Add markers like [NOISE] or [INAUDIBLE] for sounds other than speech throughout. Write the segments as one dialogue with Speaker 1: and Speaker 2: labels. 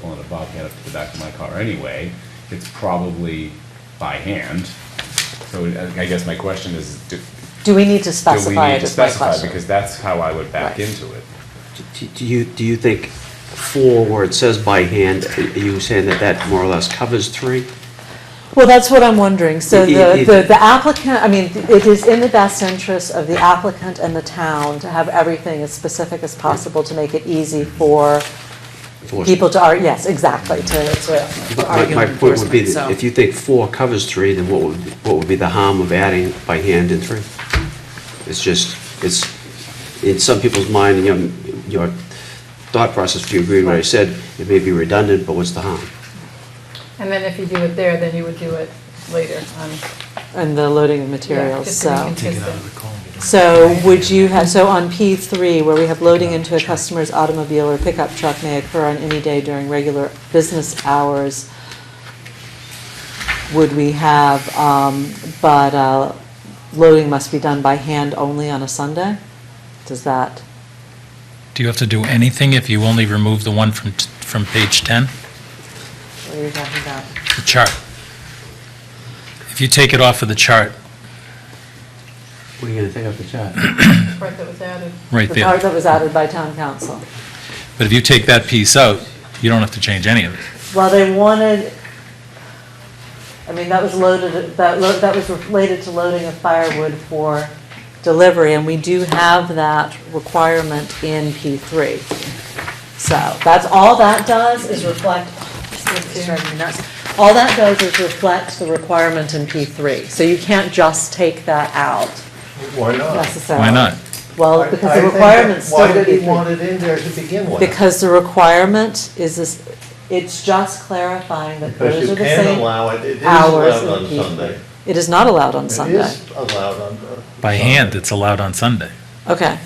Speaker 1: pulling a bobcat up to the back of my car anyway. It's probably by hand. So I- I guess my question is, do,
Speaker 2: Do we need to
Speaker 1: do we
Speaker 2: specify
Speaker 1: need
Speaker 2: it
Speaker 1: to
Speaker 2: is my
Speaker 1: specify?
Speaker 2: question?
Speaker 1: Because that's how I would back
Speaker 2: Right.
Speaker 1: into it.
Speaker 3: Do- Do you, do you think four, where it says by hand, are you saying that that more or less covers three?
Speaker 2: Well, that's what I'm wondering. So
Speaker 3: It-
Speaker 2: the
Speaker 3: it-
Speaker 2: the the applicant, I mean, it is in the best interest of the applicant and the town to have everything as specific as possible to make it easy for
Speaker 3: Four-
Speaker 2: people to, ar- yes, exactly, to to to
Speaker 3: But my-
Speaker 2: argue
Speaker 3: My point would be
Speaker 2: enforcement,
Speaker 3: that
Speaker 2: so.
Speaker 3: if you think four covers three, then what would, be- what would be the harm of adding by hand in three? It's just, it's, in some people's mind, you know, your thought process, if you agree with what I said, it may be redundant, but what's the harm?
Speaker 4: And then if you do it there, then you would do it later on.
Speaker 2: And the loading of
Speaker 4: yeah,
Speaker 2: materials,
Speaker 4: just to be
Speaker 2: so.
Speaker 5: Take it out of
Speaker 4: consistent.
Speaker 5: the column. you don't-
Speaker 2: So would you have, so on P3, where we have loading into a customer's automobile or pickup truck may occur on any day during regular business hours, would we have, um, but uh, loading must be done by hand only on a Sunday? Does that,
Speaker 6: Do you have to do anything if you only remove the one from, t- from page 10,
Speaker 2: what are you talking about?
Speaker 6: the chart? If you take it off of the chart,
Speaker 3: What are you gonna take off the chart?
Speaker 4: The part that was added.
Speaker 6: right
Speaker 2: The part
Speaker 6: there.
Speaker 2: that was added by town council.
Speaker 6: But if you take that piece out, you don't have to change any of it.
Speaker 2: Well, they wanted, I mean, that was loaded, that, lo- that was related to loading of firewood for delivery, and we do have that requirement in P3. So that's, all that does is reflect, this is driving me nuts. all that does is reflect the requirement in P3. So you can't just take that out
Speaker 7: Why not?
Speaker 2: necessarily.
Speaker 6: Why not?
Speaker 2: Well,
Speaker 7: I- I
Speaker 2: because the
Speaker 7: think-
Speaker 2: requirement's still in
Speaker 7: Why
Speaker 2: P3.
Speaker 7: did he want it in there to begin with?
Speaker 2: Because the requirement is this, it's just clarifying that
Speaker 7: Because
Speaker 2: those are
Speaker 7: you
Speaker 2: the
Speaker 7: can
Speaker 2: same.
Speaker 7: allow it, it is
Speaker 2: hours
Speaker 7: allowed on
Speaker 2: in the-
Speaker 7: Sunday.
Speaker 2: It is not allowed on
Speaker 7: It
Speaker 2: Sunday.
Speaker 7: is allowed on. uh,
Speaker 6: By
Speaker 7: Sunday.
Speaker 6: hand, it's allowed on Sunday.
Speaker 2: Okay.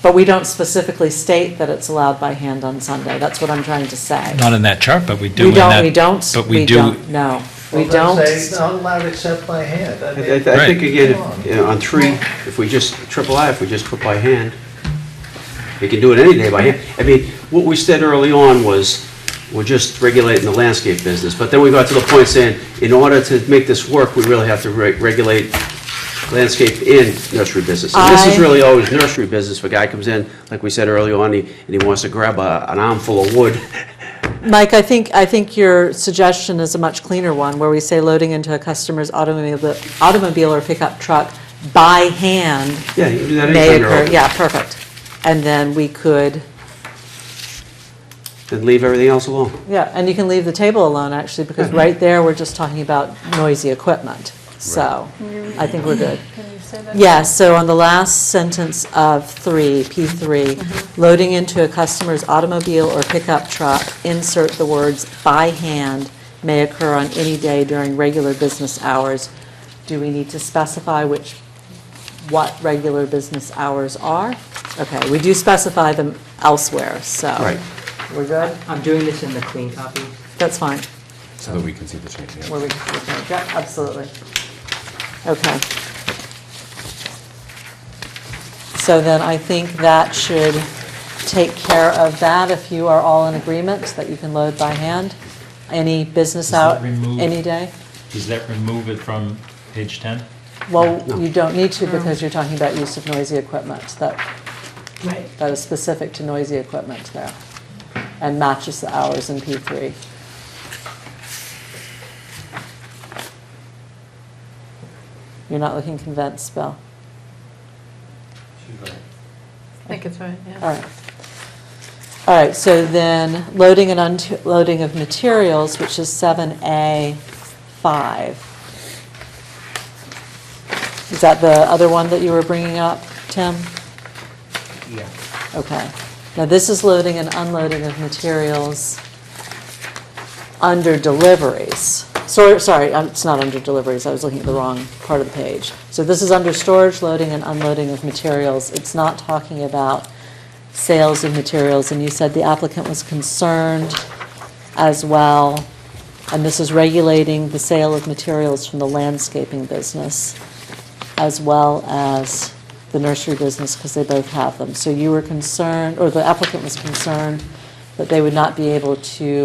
Speaker 2: But we don't specifically state that it's allowed by hand on Sunday. That's what I'm trying to say.
Speaker 6: Not in that chart, but we do
Speaker 2: We
Speaker 6: in that.
Speaker 2: don't, we don't,
Speaker 6: But
Speaker 2: we
Speaker 6: we do,
Speaker 2: don't, no. We
Speaker 7: Well, then
Speaker 2: don't.
Speaker 7: say it's not allowed except by hand. I
Speaker 3: I
Speaker 7: mean,
Speaker 3: I- I think
Speaker 6: Right.
Speaker 3: again, if, you know, on three, if we just, triple I, if we just put by hand, we can do it any day by hand. I mean, what we said early on was, we're just regulating the landscape business, but then we got to the point saying, in order to make this work, we really have to re- regulate landscape and nursery business. And this
Speaker 2: I-
Speaker 3: is really always nursery business, if a guy comes in, like we said early on, he- and he wants to grab a- an armful of wood, [LAUGHS]
Speaker 2: Mike, I think, I think your suggestion is a much cleaner one, where we say loading into a customer's automobile, automobile or pickup truck by hand
Speaker 3: yeah, you can do that
Speaker 2: may
Speaker 3: anytime you're
Speaker 2: occur.
Speaker 3: open.
Speaker 2: Yeah, perfect. And then we could.
Speaker 3: Then leave everything else alone.
Speaker 2: Yeah, and you can leave the table alone, actually, because right there, we're just talking about noisy equipment. So I think we're good.
Speaker 4: Can you say that?
Speaker 2: Yeah, so on the last sentence of three,
Speaker 8: Mm-hmm.
Speaker 2: P3, loading into a customer's automobile or pickup truck, insert the words "by hand" may occur on any day during regular business hours. Do we need to specify which, what regular business hours are? Okay, we do specify them elsewhere, so.
Speaker 3: Right.
Speaker 8: We're good? I'm doing this in the clean copy
Speaker 2: That's fine.
Speaker 1: So that we can see the change, yeah.
Speaker 2: where we can see things. Yeah, absolutely. Okay. So then I think that should take care of that, if you are all in agreement, that you can load by hand, any business
Speaker 6: Does that
Speaker 2: out,
Speaker 6: remove-
Speaker 2: any day?
Speaker 6: does that remove it from page 10?
Speaker 2: Well, you don't need to, because you're talking about use of noisy equipment, that,
Speaker 4: Right.
Speaker 2: that is specific to noisy equipment there, and matches the hours in P3. You're not looking convinced, Bill?
Speaker 4: I think it's right, yeah.
Speaker 2: All right. All right, so then, loading and unloading of materials, which is 7A5. Is that the other one that you were bringing up, Tim?
Speaker 8: Yeah.
Speaker 2: Okay. Now, this is loading and unloading of materials under deliveries. Sorry, sorry, um, it's not under deliveries, I was looking at the wrong part of the page. So this is under storage, loading, and unloading of materials. It's not talking about sales of materials, and you said the applicant was concerned as well, and this is regulating the sale of materials from the landscaping business as well as the nursery business, because they both have them. So you were concerned, or the applicant was concerned that they would not be able to